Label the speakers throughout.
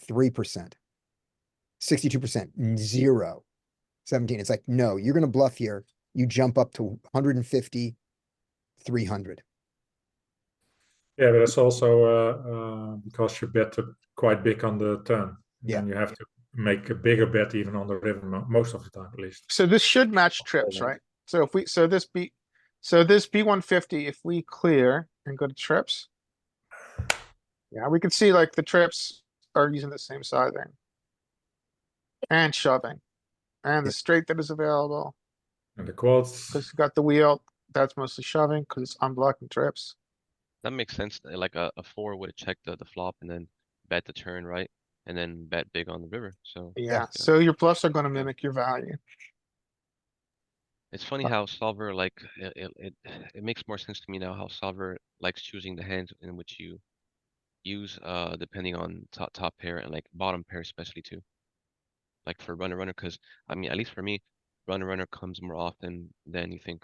Speaker 1: three percent. Sixty-two percent, zero. Seventeen, it's like, no, you're gonna bluff here. You jump up to 150, 300.
Speaker 2: Yeah, but it's also uh, uh, because you bet uh, quite big on the turn.
Speaker 1: Yeah.
Speaker 2: And you have to make a bigger bet even on the river, mo- most of the time at least.
Speaker 3: So this should match trips,
Speaker 2: then.
Speaker 3: right? So if we, so this B, so this B one fifty, if we clear and go to trips. Yeah, we can see like the trips are using the same sizing. And shoving. And the straight that is available,
Speaker 2: And the quads,
Speaker 3: cause you got the wheel, that's mostly shoving, cause it's unblocking trips.
Speaker 4: That makes sense, uh, like a, a four would check the, the flop and then bet the turn, right? And then bet big on the river, so.
Speaker 3: Yeah, so your bluffs are gonna mimic your value.
Speaker 4: It's funny how solver like, it, it, it, it makes more sense to me now how solver likes choosing the hands in which you use, uh, depending on top, top pair and like bottom pair especially too. Like for runner runner, cuz I mean, at least for me, runner runner comes more often than you think.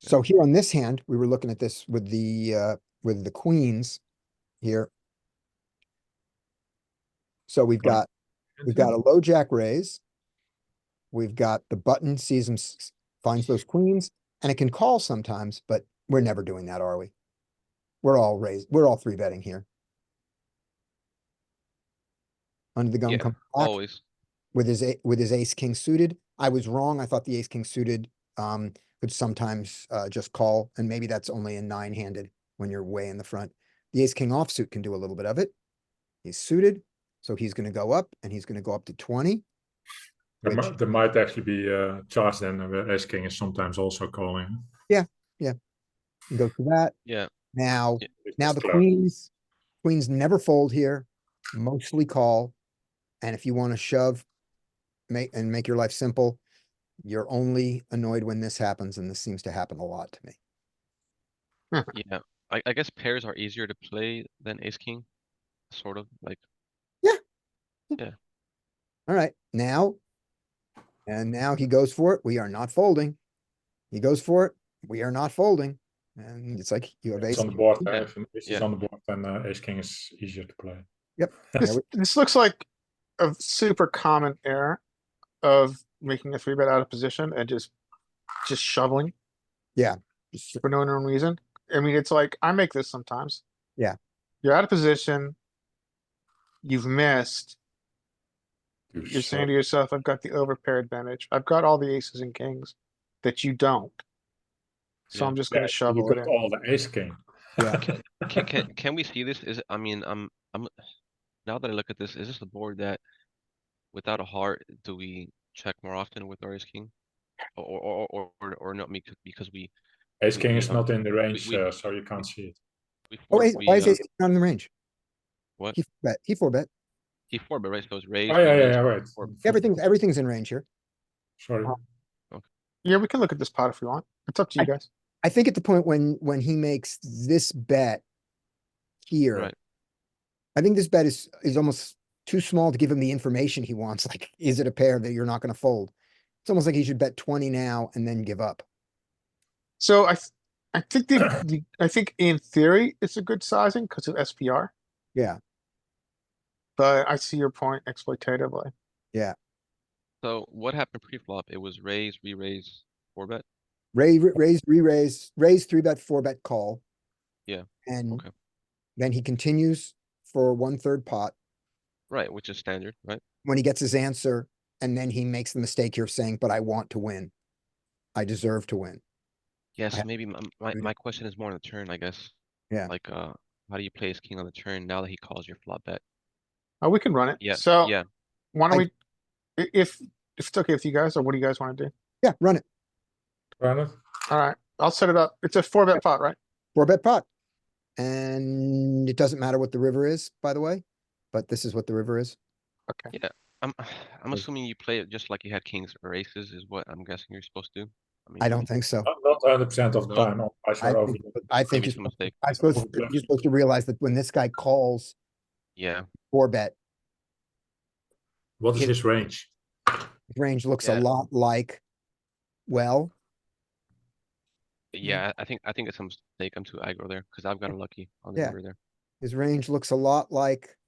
Speaker 1: So here on this hand, we were looking at this with the, uh, with the queens here. So we've got, we've got a low jack raise. We've got the button sees him, s- finds those queens, and it can call sometimes, but we're never doing that, are we? We're all raised, we're all three betting here. Under the gun
Speaker 4: Yeah,
Speaker 1: comes black
Speaker 4: Always,
Speaker 1: with his, a- with his ace king suited. I was wrong. I thought the ace king suited, um, could sometimes, uh, just call, and maybe that's only in nine handed when you're way in the front. The ace king offsuit can do a little bit of it. He's suited, so he's gonna go up and he's gonna go up to twenty.
Speaker 2: there, mi-
Speaker 1: which-
Speaker 2: there might actually be uh, charged then, where ace king is sometimes also calling.
Speaker 1: and Go to that.
Speaker 4: yeah,
Speaker 1: Now,
Speaker 4: Yeah,
Speaker 2: It's
Speaker 1: now the
Speaker 2: close.
Speaker 1: queens, queens never fold here, mostly call. And if you want to shove, make, and make your life simple, you're only annoyed when this happens, and this seems to happen a lot to me.
Speaker 4: yeah. I, I guess pairs are easier to play than ace king, sort of, like,
Speaker 1: All right, now. And now he goes for it. We are not folding. He goes for it. We are not folding. And it's like you have ace.
Speaker 2: It's on the board.
Speaker 4: Yeah.
Speaker 2: uh, If an ace is
Speaker 4: Yeah.
Speaker 2: on the board, then uh, ace king is easier to play.
Speaker 1: Yeah,
Speaker 3: This,
Speaker 1: we-
Speaker 3: this looks like a super common error of making a three bet out of position and just, just shoveling.
Speaker 1: just-
Speaker 3: for no known reason. I mean, it's like, I make this sometimes.
Speaker 1: Yeah.
Speaker 3: You're out of position. You've missed.
Speaker 2: You
Speaker 3: You're
Speaker 2: shove-
Speaker 3: saying to yourself, I've got the overpair advantage. I've got all the aces and kings that you don't. So
Speaker 4: Yeah.
Speaker 3: I'm just
Speaker 2: Yeah,
Speaker 3: gonna
Speaker 2: you
Speaker 3: shovel it
Speaker 2: got
Speaker 3: in.
Speaker 2: All the ace king.
Speaker 1: Yeah.
Speaker 4: Can can can we see this? Is it- I mean, I'm I'm now that I look at this, is this the board that without a heart do we check more often with our ace king? Or or or or, or not me because we
Speaker 2: Ace king is
Speaker 4: Yeah.
Speaker 2: not in the range,
Speaker 4: we-
Speaker 2: uh, so you can't see it.
Speaker 4: we
Speaker 1: Oh,
Speaker 4: four-
Speaker 1: ace-
Speaker 4: we,
Speaker 1: why is
Speaker 4: uh,
Speaker 1: ace king not in the range?
Speaker 4: What?
Speaker 1: He bet, he four bet.
Speaker 4: he four but right so it's raised.
Speaker 2: Oh, yeah,
Speaker 4: and
Speaker 2: yeah,
Speaker 4: raised.
Speaker 2: yeah, right.
Speaker 4: four.
Speaker 1: Everything's, everything's in range here.
Speaker 2: Sorry.
Speaker 1: Oh.
Speaker 3: Yeah, we can look at this pot if we want. It's up to you
Speaker 1: I-
Speaker 3: guys.
Speaker 1: I think at the point when, when he makes this bet here,
Speaker 4: Right.
Speaker 1: I think this bet is, is almost too small to give him the information he wants. Like, is it a pair that you're not going to fold? It's almost like he should bet twenty now and then give up.
Speaker 3: So I, th- I think the, the, I think in theory, it's a good sizing because of SPR,
Speaker 1: Yeah,
Speaker 3: but I see your point exploitatively.
Speaker 4: So what happened pre-flop? It was raise, re-raise, four bet.
Speaker 1: raise, raise, re-raise, raise, three bet, four bet, call.
Speaker 4: Yeah,
Speaker 1: And
Speaker 4: okay.
Speaker 1: then he continues for one third pot
Speaker 4: Right, which is standard, right?
Speaker 1: when he gets his answer. And then he makes the mistake here of saying, but I want to win. I deserve to win.
Speaker 4: Yeah, so
Speaker 1: ha-
Speaker 4: maybe my my,
Speaker 1: yeah.
Speaker 4: my question is more on the turn, I guess.
Speaker 1: Yeah.
Speaker 4: Like uh how do you play ace king on the turn now that he calls your flop bet?
Speaker 3: Oh, we can run it.
Speaker 4: Yeah,
Speaker 3: So
Speaker 4: yeah.
Speaker 3: why don't
Speaker 1: I-
Speaker 3: we, i- if, if it's okay with you guys, or what do you guys wanna do?
Speaker 1: Yeah, run it.
Speaker 2: Bernard?
Speaker 3: Alright, I'll set it up. It's a four bet pot, right?
Speaker 1: Four bet pot. And it doesn't matter what the river is, by the way, but this is what the river is.
Speaker 3: Okay.
Speaker 4: I'm I'm
Speaker 1: Mm.
Speaker 4: assuming you play it just like you had kings or aces is what I'm guessing you're supposed to do. mean,
Speaker 1: I don't think so.
Speaker 2: Not- Not hundred percent of the
Speaker 4: No.
Speaker 2: time, otherwise
Speaker 1: I
Speaker 2: you're over.
Speaker 1: think, I think you're
Speaker 4: maybe it's a
Speaker 1: supposed-
Speaker 4: mistake.
Speaker 1: I'm supposed, you're supposed to realize that when this guy calls
Speaker 4: Yeah,
Speaker 1: four bet,
Speaker 2: What is
Speaker 1: It-
Speaker 2: his range?
Speaker 1: his range looks a
Speaker 4: Yeah.
Speaker 1: lot like, well,
Speaker 4: yeah, I think I think it's a mistake. I'm too aggro there because I've gotten lucky on the
Speaker 1: Yeah.
Speaker 4: river there.
Speaker 1: His range looks a lot like